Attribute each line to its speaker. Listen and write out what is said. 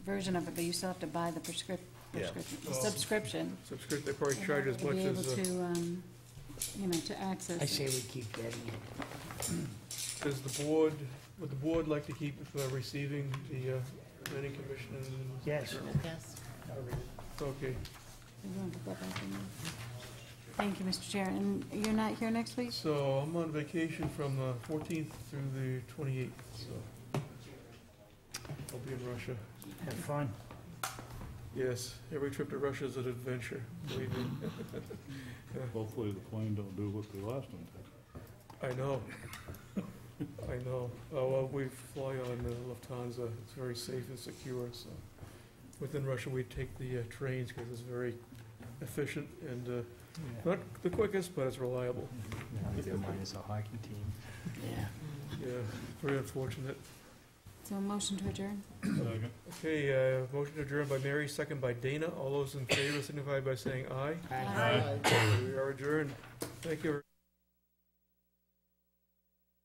Speaker 1: version of it, but you still have to buy the prescrip,
Speaker 2: Yeah.
Speaker 1: prescription, the subscription.
Speaker 3: Subscription, they probably
Speaker 1: in
Speaker 3: charge
Speaker 1: order
Speaker 3: as much
Speaker 1: To
Speaker 3: as,
Speaker 1: be
Speaker 3: uh,
Speaker 1: able to, um, you know, to access.
Speaker 4: I
Speaker 1: it.
Speaker 4: say we keep getting it.
Speaker 3: does the board, would the board like to keep uh, receiving the uh, planning commission? and-
Speaker 4: Yes.
Speaker 5: Yes.
Speaker 3: Okay,
Speaker 1: You wanna put that back in there? Thank you, Mr. Chair. And you're not here next week?
Speaker 3: so I'm on vacation from the 14th through the 28th, so I'll be in Russia.
Speaker 4: Have fun.
Speaker 3: Yes, every trip to Russia is an adventure, believe me.
Speaker 6: Hopefully the plane don't do what the last one did.
Speaker 3: I know. I know. Uh, well, we fly on uh, Lufthansa. It's very safe and secure, so. Within Russia, we take the uh, trains because it's very efficient and, uh, not the quickest, but it's reliable.
Speaker 7: Minus a hockey team.
Speaker 4: Yeah.
Speaker 3: Yeah, very unfortunate.
Speaker 1: So a motion to adjourn?
Speaker 3: Okay, uh, motion adjourned by Mary, second by Dana. All those in favor signify by saying aye.
Speaker 4: Aye.
Speaker 1: Aye.
Speaker 3: We are adjourned. Thank you.